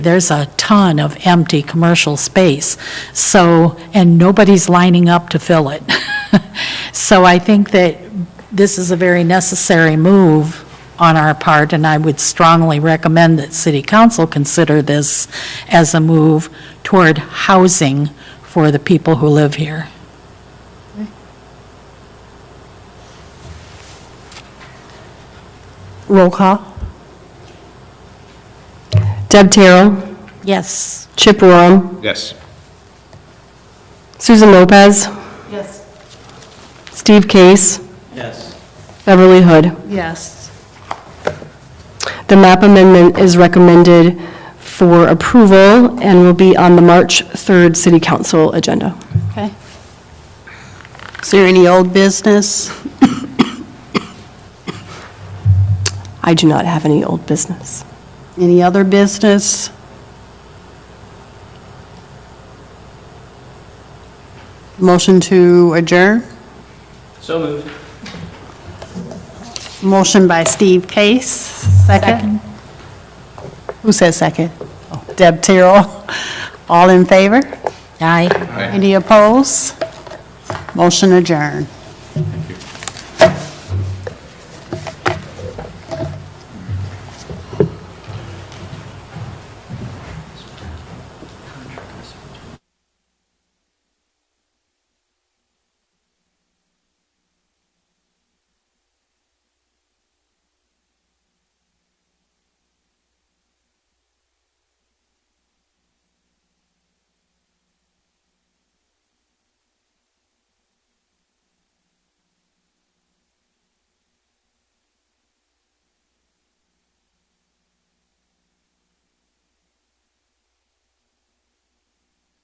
There's a ton of empty commercial space, so, and nobody's lining up to fill it. So I think that this is a very necessary move on our part, and I would strongly recommend that city council consider this as a move toward housing for the people who live here. Roll call. Deb Terrell, Yes. Chip Roam, Yes. Susan Lopez. Yes. Steve Case, Yes. Beverly Hood. Yes. The map amendment is recommended for approval and will be on the March 3rd City Council agenda. Okay. Is there any old business? I do not have any old business. Any other business? Motion to adjourn? So moved. Motion by Steve Case, second. Who says second? Oh, Deb Terrell. All in favor? Aye. Any opposed? Motion adjourned.